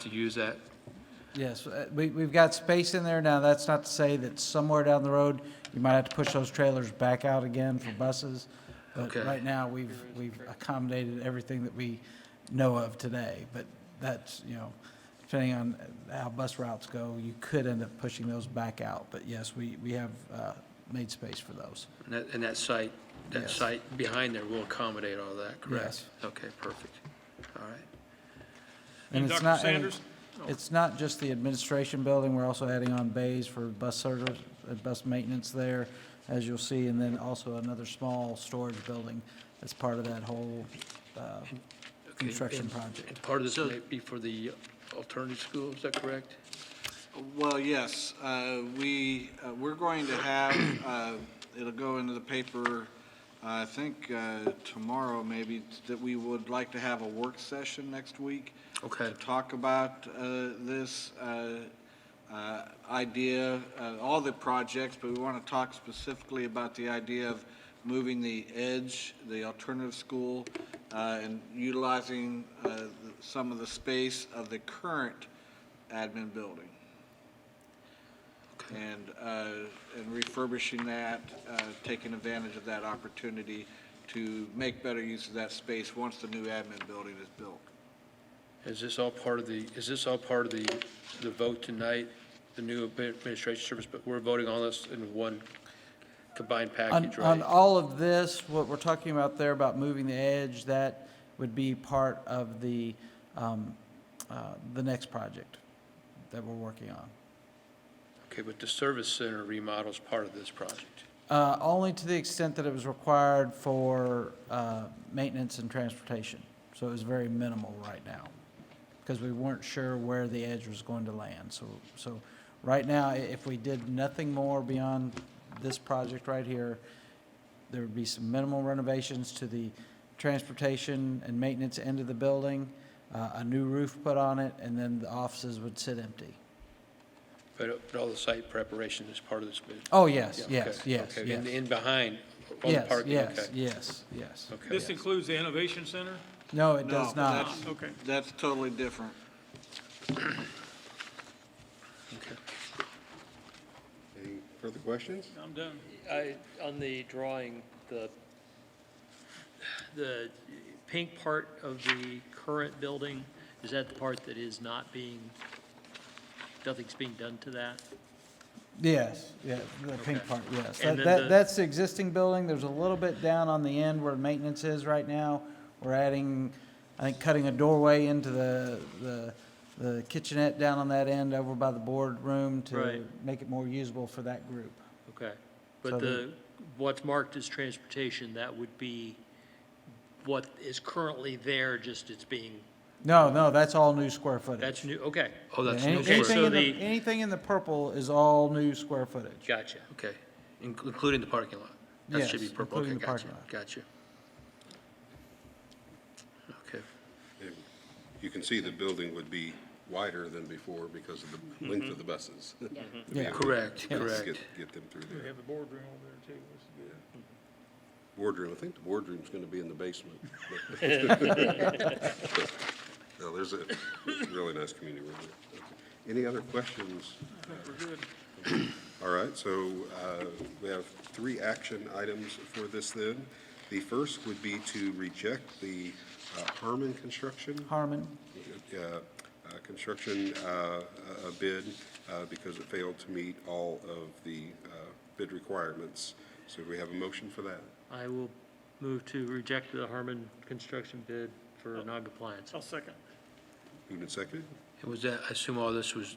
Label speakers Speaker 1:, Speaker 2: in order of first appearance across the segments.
Speaker 1: to use that.
Speaker 2: Yes, uh, we, we've got space in there now. That's not to say that somewhere down the road, you might have to push those trailers back out again for buses. But
Speaker 1: Okay.
Speaker 2: right now, we've, we've accommodated everything that we know of today. But that's, you know, depending on how bus routes go, you could end up pushing those back out. But yes, we, we have uh, made space for those.
Speaker 1: And that, and that site, that
Speaker 2: Yes.
Speaker 1: site behind there will accommodate all that, correct?
Speaker 2: Yes.
Speaker 1: Okay, perfect. All right.
Speaker 2: And
Speaker 3: And
Speaker 2: it's
Speaker 3: Dr.
Speaker 2: not- and
Speaker 3: Sanders?
Speaker 2: It's not just the administration building, we're also adding on bays for bus service, uh, bus maintenance there, as you'll see, and then also another small storage building as part of that whole uh,
Speaker 1: Okay,
Speaker 2: construction
Speaker 1: and-
Speaker 2: project.
Speaker 1: and Part of this may be for the alternative school, is that correct?
Speaker 4: Well, yes, uh, we, uh, we're going to have, uh, it'll go into the paper, I think uh, tomorrow maybe, that we would like to have a work session next week
Speaker 1: Okay.
Speaker 4: to talk about uh, this uh, uh, idea, uh, all the projects, but we want to talk specifically about the idea of moving the edge, the alternative school, uh, and utilizing uh, the- some of the space of the current admin building and, uh, and refurbishing that, uh, taking advantage of that opportunity to make better use of that space once the new admin building is built.
Speaker 1: Is this all part of the, is this all part of the, the vote tonight, the new administration service, but we're voting on this in one combined
Speaker 2: On,
Speaker 1: package,
Speaker 2: on
Speaker 1: right?
Speaker 2: all of this, what we're talking about there about moving the edge, that would be part of the, um, uh, the next project that we're working on.
Speaker 1: Okay, but the service center remodel is part of this project.
Speaker 2: Uh, Only to the extent that it was required for uh, maintenance and transportation. So it was very minimal right now, because we weren't sure where the edge was going to land. So, so right now, i- if we did nothing more beyond this project right here, there would be some minimal renovations to the transportation and maintenance end of the building, uh, a new roof put on it, and then the offices would sit empty.
Speaker 1: But but all the site preparation is part of this. bid.
Speaker 2: Oh, yes,
Speaker 1: Yeah, okay,
Speaker 2: yes, yes,
Speaker 1: okay.
Speaker 2: yes.
Speaker 1: In, in behind, on the
Speaker 2: Yes,
Speaker 1: parking, okay.
Speaker 2: yes, yes, yes.
Speaker 1: Okay.
Speaker 3: This includes the Innovation Center?
Speaker 2: No, it
Speaker 4: No,
Speaker 2: does not.
Speaker 4: that's-
Speaker 3: Okay.
Speaker 4: That's totally different.
Speaker 5: Any further questions?
Speaker 3: I'm done.
Speaker 6: I, on the drawing, the, the pink part of the current building, is that the part that is not being, nothing's being done to that?
Speaker 2: Yes, yeah, the pink part, yes. That,
Speaker 6: And then
Speaker 2: that-
Speaker 6: the-
Speaker 2: that's the existing building, there's a little bit down on the end where maintenance is right now. We're adding, I think, cutting a doorway into the, the, the kitchenette down on that end over by the boardroom to
Speaker 6: Right.
Speaker 2: make it more usable for that group.
Speaker 6: Okay.
Speaker 2: So
Speaker 6: But
Speaker 2: the-
Speaker 6: the, what's marked as transportation, that would be what is currently there, just it's being,
Speaker 2: No, no, that's all new square footage.
Speaker 6: that's new, okay,
Speaker 1: Oh, that's
Speaker 2: Any-
Speaker 1: new
Speaker 6: Okay,
Speaker 1: square,
Speaker 2: Anything
Speaker 6: so
Speaker 2: in the,
Speaker 6: the-
Speaker 2: anything in the purple is all new square footage.
Speaker 6: gotcha.
Speaker 1: okay, In- including the parking lot? That should be
Speaker 2: Yes,
Speaker 1: purple, okay,
Speaker 2: including the
Speaker 1: gotcha,
Speaker 2: parking lot.
Speaker 1: gotcha. Okay,
Speaker 5: And You can see the building would be wider than before because of the length of the buses. to be
Speaker 2: Yeah.
Speaker 5: able to
Speaker 1: correct,
Speaker 5: get-
Speaker 1: correct.
Speaker 5: get- Get them through
Speaker 3: We
Speaker 5: there.
Speaker 3: have a boardroom over there, too. It's-
Speaker 5: Boardroom, I think the boardroom's going to be in the basement. No, there's a really nice community room there. Okay. Any other questions?
Speaker 3: I think we're good.
Speaker 5: All right, so uh, we have three action items for this then. The first would be to reject the uh, Harmon Construction
Speaker 2: Harmon,
Speaker 5: uh, uh, construction uh, uh, bid uh, because it failed to meet all of the uh, bid requirements. So we have a motion for that.
Speaker 6: I will move to reject the Harmon construction bid for non-compliance.
Speaker 3: I'll second.
Speaker 5: Moved and seconded.
Speaker 1: and was that, I assume all this was,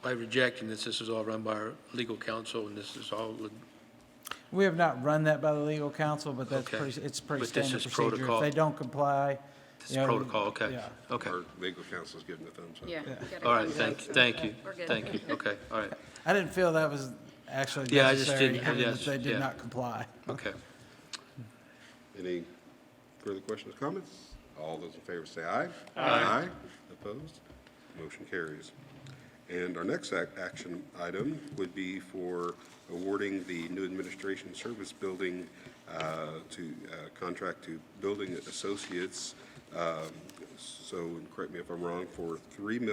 Speaker 1: by rejecting this, this is all run by our legal counsel, and this is all, with-
Speaker 2: We have not run that by the legal counsel, but that's
Speaker 1: Okay.
Speaker 2: pretty, it's pretty
Speaker 1: But this
Speaker 2: standard
Speaker 1: is
Speaker 2: procedure. If
Speaker 1: protocol.
Speaker 2: they don't comply.
Speaker 1: this
Speaker 2: you
Speaker 1: is
Speaker 2: know,
Speaker 1: protocol, okay,
Speaker 2: yeah.
Speaker 1: okay.
Speaker 5: Our legal counsel's giving a thumbs up.
Speaker 7: Yeah.
Speaker 1: All right, thank, thank you,
Speaker 7: We're good.
Speaker 1: thank you, okay, all right,
Speaker 2: I didn't feel that was actually
Speaker 1: Yeah, I just
Speaker 2: necessary,
Speaker 1: didn't-
Speaker 2: given that
Speaker 1: yes,
Speaker 2: they
Speaker 1: yeah.
Speaker 2: did not comply.
Speaker 1: okay.
Speaker 5: Any further questions, comments? All those in favor say aye. Aye. Opposed? Motion carries. And our next ac- action item would be for awarding the new administration service building uh, to, uh, contract to Building Associates, um, so, and correct me if I'm wrong, for three million.